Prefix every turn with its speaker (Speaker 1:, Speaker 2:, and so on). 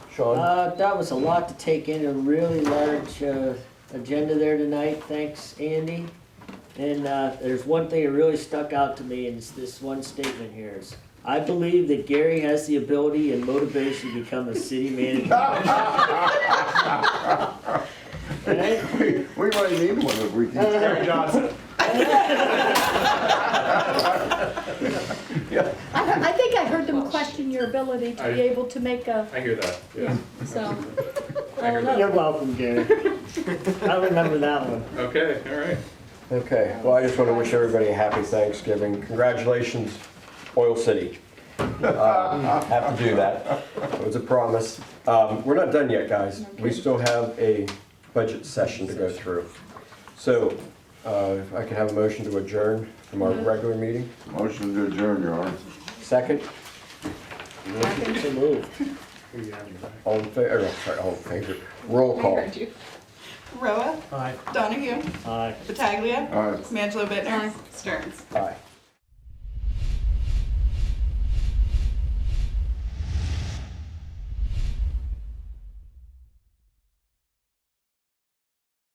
Speaker 1: Sean?
Speaker 2: Uh, that was a lot to take in, a really large, uh, agenda there tonight, thanks Andy. And, uh, there's one thing that really stuck out to me, and it's this one statement here is, I believe that Gary has the ability and motivation to become a city manager. And I-
Speaker 1: We might need one if we can.
Speaker 3: Gary Johnson.
Speaker 4: I, heard- I think I heard them question your ability to
Speaker 3: I-
Speaker 4: be able to make a,
Speaker 3: I hear that, yes.
Speaker 4: so,
Speaker 3: I
Speaker 4: I don't
Speaker 3: heard that.
Speaker 4: know.
Speaker 2: You're welcome, Gary. I remember that one.
Speaker 3: Okay, all right.
Speaker 1: Okay, well, I just want to wish everybody a happy Thanksgiving. Congratulations, Oil City. Uh, Have to do that. It was a promise. Um, We're not done yet, guys. We still have a budget session to go through. So uh, if I can have a motion to adjourn from our regular meeting.
Speaker 5: Motion to adjourn, Your Honor.
Speaker 1: Second,
Speaker 4: Second.
Speaker 2: So moved.
Speaker 3: Who you have in your back?
Speaker 1: all in favor, sorry, all in favor. Roll
Speaker 6: I
Speaker 1: call.
Speaker 6: heard you. Roa. Donahue.
Speaker 2: Aye.
Speaker 6: Battaglia.
Speaker 5: All right.
Speaker 6: Mangelo Bittner. Stearns.
Speaker 1: Aye.